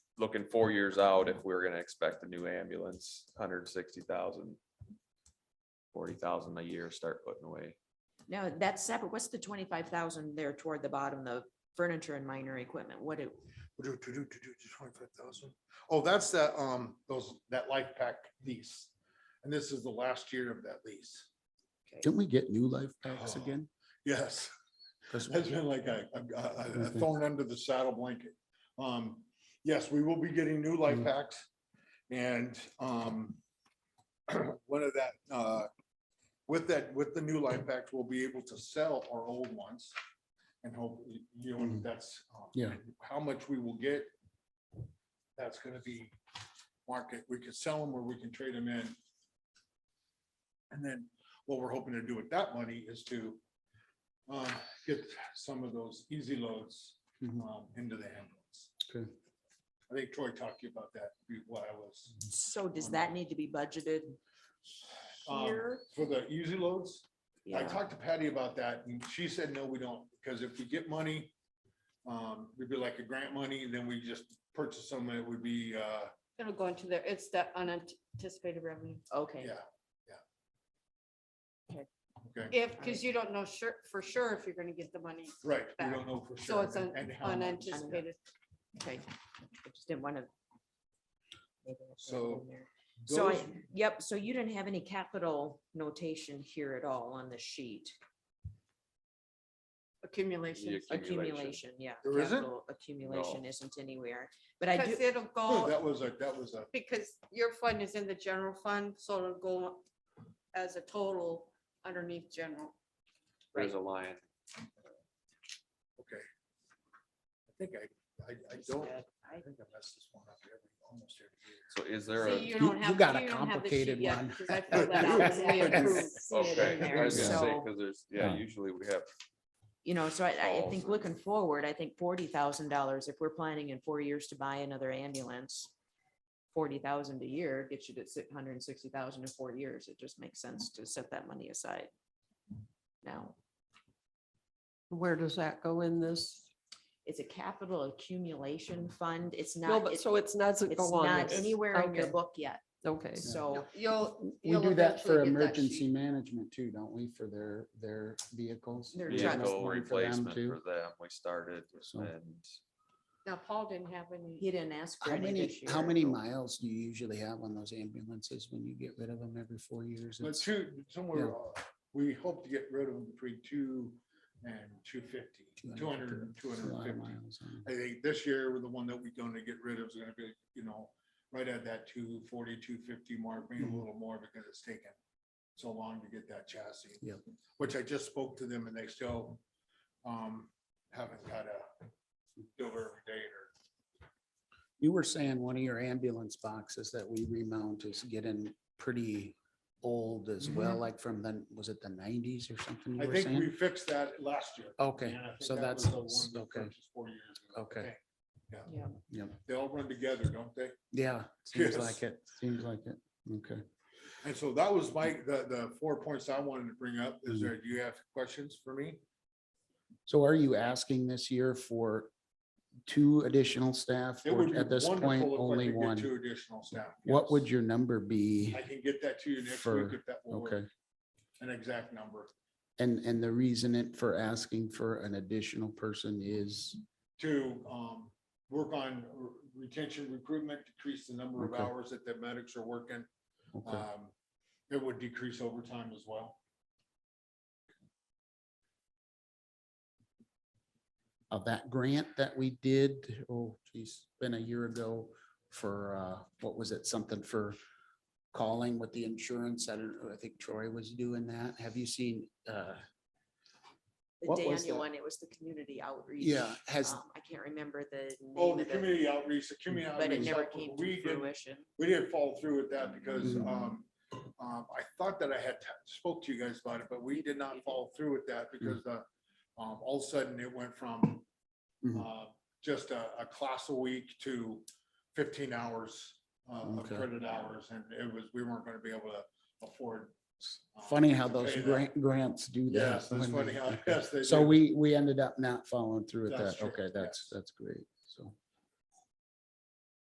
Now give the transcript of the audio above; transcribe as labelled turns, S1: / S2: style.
S1: looking four years out, if we're gonna expect a new ambulance, hundred sixty thousand. Forty thousand a year, start putting away.
S2: No, that's separate. What's the twenty-five thousand there toward the bottom, the furniture and minor equipment? What do,
S3: Do, do, do, do, do, twenty-five thousand. Oh, that's that, um, those, that life pack lease. And this is the last year of that lease.
S4: Can we get new life packs
S3: Oh.
S4: again?
S3: Yes,
S4: 'Cause
S3: that's been like a, a- a, a thorn under the saddle blanket. Um, yes, we will be getting new life
S4: Mhm.
S3: packs and, um, one of that, uh, with that, with the new life packs, we'll be able to sell our old ones. And hopefully, you know,
S4: Mhm.
S3: that's, um,
S4: Yeah.
S3: how much we will get. That's gonna be market. We could sell them or we can trade them in. And then what we're hoping to do with that money is to uh, get some of those easy loads
S4: Mhm.
S3: um, into the ambulance.
S4: Okay.
S3: I think Troy talked to you about that be- while I was.
S2: so does that need to be budgeted?
S3: um,
S2: Here?
S3: For the easy loads, I
S2: Yeah,
S3: talked to Patty about that and she said, no, we don't, because if we get money, um, it'd be like a grant money, then we just purchase them, and it would be, uh,
S5: It'll go into there. It's the unanticipated revenue.
S2: okay.
S3: yeah,
S5: If, because you don't know sure, for sure if you're gonna get the money.
S3: right. We don't know for
S5: So
S3: sure.
S5: it's un-
S3: and how much.
S5: unanticipated.
S2: Okay. I just didn't want to.
S3: So
S2: So I,
S3: Those-
S2: yep, so you didn't have any capital notation here at all on the sheet,
S5: accumulation.
S1: Yeah. Accumulation.
S2: accumulation, yeah.
S3: There isn't?
S2: capital Accumulation
S1: No.
S2: isn't anywhere, but I do,
S5: Because it'll
S2: Oh.
S3: No,
S5: go,
S3: That was a, that was a,
S5: because your fund is in the general fund, so it'll go as a total underneath general.
S1: There's a line.
S3: okay. I think I, I, I don't, I think I messed this one up every, almost every
S1: So is there
S5: See,
S1: a,
S5: you
S4: You-
S5: don't
S4: you
S5: have.
S4: got a
S5: don't have the sheet
S4: complicated
S5: yet,
S4: one.
S5: 'cause I filled that out when we
S1: okay,
S5: approved.
S2: in
S1: I was
S4: there,
S1: gonna say,
S2: so-
S1: cause there's, yeah,
S4: Yeah.
S1: usually we have,
S2: you know, so I, I think
S1: Thousand.
S2: looking forward, I think forty thousand dollars, if we're planning in four years to buy another ambulance. Forty thousand a year gets you to six hundred and sixty thousand in four years. It just makes sense to set that money aside. Now,
S6: Where does that go in this?
S2: it's a capital accumulation fund. It's
S6: No,
S2: not,
S6: but
S2: it-
S6: so it's not, doesn't
S2: it's
S6: go on
S2: not
S6: this.
S2: anywhere in your
S6: Okay,
S2: book yet.
S6: Okay,
S2: So
S5: You'll.
S4: We
S5: you'll
S4: do that
S5: eventually
S4: for
S5: get that
S4: emergency
S5: sheet.
S4: management too, don't we, for their, their vehicles?
S2: Their
S4: We have
S2: trucks.
S1: vehicle
S4: one for them
S1: replacement
S4: too.
S1: for them, we started
S4: So-
S1: and.
S5: Now, Paul didn't have any.
S2: he didn't ask for
S4: How
S2: any
S4: many,
S2: this year.
S4: how many miles do you usually have on those ambulances when you get rid of them every four years?
S3: year. But
S4: It's-
S3: two, somewhere,
S4: yeah.
S3: uh, we hope to get rid of them between two and two fifty, two
S4: 200,
S3: hundred and two
S4: it's a
S3: hundred and
S4: lot of
S3: fifty.
S4: miles, huh?
S3: I think this year, with the one that we're gonna get rid of is gonna be, you know, right at that two forty, two fifty mark, maybe a
S4: Mhm.
S3: little more because it's taken so long to get that chassis.
S4: Yep.
S3: Which I just spoke to them and they still, um, haven't got a silver date or
S4: You were saying one of your ambulance boxes that we remount is getting pretty old as well, like from the, was it the nineties or something
S3: Mm-hmm. I
S4: you were
S3: think we
S4: saying? Oh,
S3: fixed that last year.
S4: Okay,
S3: and I think
S4: so
S3: that
S4: that's,
S3: was the one we
S4: okay,
S3: purchased Four years ago.
S4: Okay.
S3: Okay.
S2: Yeah.
S4: yep,
S3: They all run together, don't they?
S4: yeah, seems
S3: Yes.
S4: like it, seems like it, okay.
S3: And so that was my, the, the four points I wanted to bring up. Is there, do you have questions for me?
S4: So are you asking this year for two additional staff
S3: It would
S4: or
S3: be
S4: at this point,
S3: wonderful if I
S4: only
S3: could get Two
S4: one?
S3: additional staff.
S4: What
S3: yes.
S4: would your number be?
S3: I can get that to you next
S4: for-
S3: week if that will work,
S4: Okay,
S3: an exact number
S4: and, and the reason it for asking for an additional person is,
S3: to, um, work on re- retention recruitment, decrease the number of
S4: Okay.
S3: hours that the medics are working.
S4: okay.
S3: Um, it would decrease overtime as well.
S4: of that grant that we did, oh geez, been a year ago for, uh, what was it, something for calling with the insurance, I don't, know. I think Troy was doing that, have you seen, uh,
S2: The
S4: What was
S2: Daniel
S4: that?
S2: one, it was the community outreach.
S4: yeah, has,
S2: Um, I can't remember the
S3: Oh,
S2: name
S3: the
S2: of it,
S3: community outreach, the community
S2: but it
S3: outreach.
S2: never
S3: helped,
S2: came to
S3: we didn't-
S2: fruition.
S3: We didn't fall through with that because,
S4: Mhm.
S3: um, um, I thought that I had t- spoke to you guys about it, but we did not follow through with that
S4: Mm-hmm.
S3: because, uh, um, all of a sudden it went from,
S4: Mhm.
S3: uh, just a, a class a week to fifteen hours, uh, of
S4: Okay.
S3: credit hours, and it was, we weren't gonna be able to afford. um,
S4: funny how
S3: to
S4: those
S3: pay that.
S4: grant, grants do that.
S3: Yes, that's
S4: when
S3: funny
S4: they-
S3: how, yes, they
S4: So
S3: do.
S4: we, we ended up not following through with
S3: That's
S4: that,
S3: true,
S4: okay, that's,
S3: yes.
S4: that's great, so.